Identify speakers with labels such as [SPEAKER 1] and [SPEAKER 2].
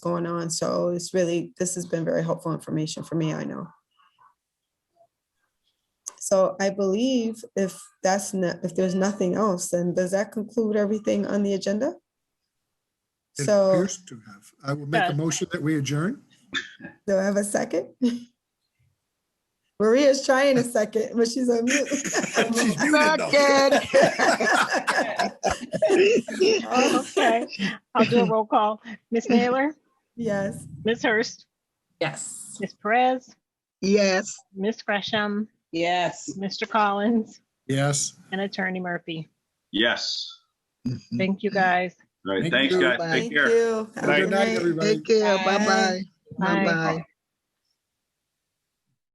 [SPEAKER 1] going on. So it's really, this has been very helpful information for me, I know. So I believe if that's not, if there's nothing else, then does that conclude everything on the agenda?
[SPEAKER 2] It
[SPEAKER 1] So
[SPEAKER 2] appears to have. I will make a
[SPEAKER 3] Yes.
[SPEAKER 2] motion that we adjourn.
[SPEAKER 1] do I have a second? Maria's trying a second, but she's on mute.
[SPEAKER 2] She's muted, though.
[SPEAKER 3] Okay, I'll do a roll call. Ms. Naylor,
[SPEAKER 1] Yes,
[SPEAKER 3] Ms. Hurst,
[SPEAKER 4] Yes.
[SPEAKER 3] Ms. Perez,
[SPEAKER 5] Yes.
[SPEAKER 3] Ms. Gresham,
[SPEAKER 4] Yes.
[SPEAKER 3] Mr. Collins,
[SPEAKER 2] Yes.
[SPEAKER 3] and Attorney Murphy.
[SPEAKER 6] Yes.
[SPEAKER 3] Thank you, guys.
[SPEAKER 6] All right.
[SPEAKER 2] Thank
[SPEAKER 6] Thanks,
[SPEAKER 2] you.
[SPEAKER 6] guys.
[SPEAKER 5] Bye.
[SPEAKER 6] Take
[SPEAKER 1] thank
[SPEAKER 6] care.
[SPEAKER 1] you. Have a
[SPEAKER 6] Good
[SPEAKER 2] Good night,
[SPEAKER 1] great-
[SPEAKER 2] everybody.
[SPEAKER 5] Take care.
[SPEAKER 4] Bye.
[SPEAKER 5] Bye-bye.
[SPEAKER 3] Bye.
[SPEAKER 5] Bye-bye.